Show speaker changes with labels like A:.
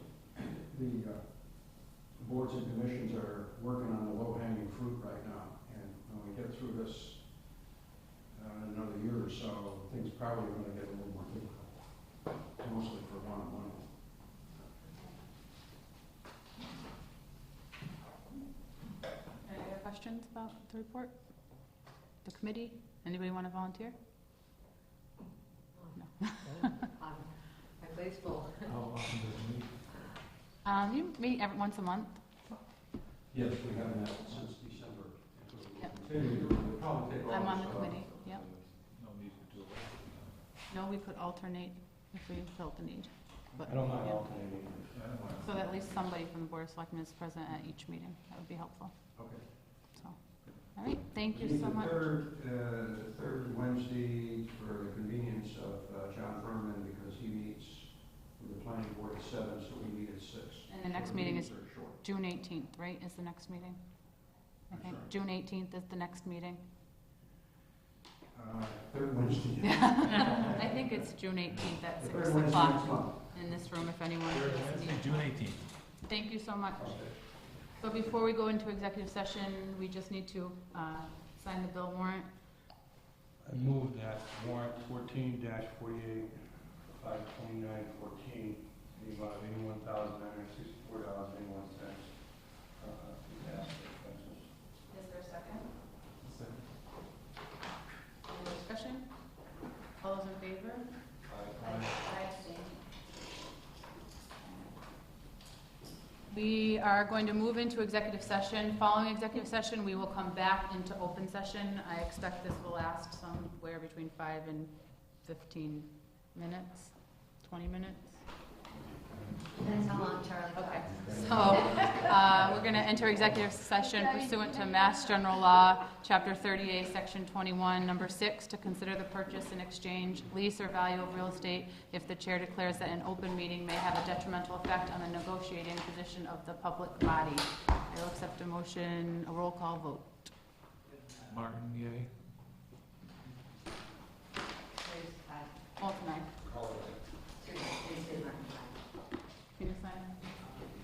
A: the uh, boards and commissions are working on the low-hanging fruit right now. And when we get through this, uh, in another year or so, things probably are gonna get a little more difficult, mostly for one-on-one.
B: Any other questions about the report? The committee? Anybody want to volunteer?
C: I'm I'm grateful.
A: How often does it meet?
B: Um, you meet every, once a month?
A: Yes, we have met since December.
B: Yep.
A: Continue, we'll probably take
B: I'm on
A: August
B: the
A: off.
B: committee, yep. No, we could alternate if we felt the need. but-
D: I don't mind
B: yeah.
D: alternating.
B: So that at least somebody from the Board of Selectmen is present at each meeting. That would be helpful,
A: Okay.
B: so. All right, thank you
A: We need
B: so
A: the
B: much.
A: Third, uh, the third Wednesday for the convenience of uh, John Furman, because he meets with the planning board at seven, so we meet at six.
B: And the next
A: So
B: meeting is
A: meetings are short.
B: June eighteenth, right, is the next meeting? I
A: I'm
B: think
A: sorry.
B: June eighteenth is the next meeting.
A: Uh, Third Wednesday.
B: I think it's June eighteenth at
A: The
B: six
A: third Wednesday next
B: o'clock
A: month.
B: in this room if anyone feels the need.
D: June eighteenth.
B: Thank you so much.
A: Okay.
B: So before we go into executive session, we just need to uh, sign the bill warrant.
D: I move that warrant fourteen dash forty-eight, five twenty-nine fourteen, in the amount of eighty-one thousand nine hundred sixty-four dollars and eighty-one cents. uh,
B: Is there a second? Any discussion? All those in favor? We are going to move into executive session. Following executive session, we will come back into open session. I expect this will last somewhere between five and fifteen minutes, twenty minutes.
C: That's how long Charlie
B: Okay,
C: talks.
B: so, uh, we're going to enter executive session pursuant to Mass General Law, Chapter 38, Section 21, Number 6, to consider the purchase and exchange, lease, or value of real estate if the chair declares that an open meeting may have a detrimental effect on the negotiating position of the public body. I will accept a motion, a roll call vote.
E: Martin, yay.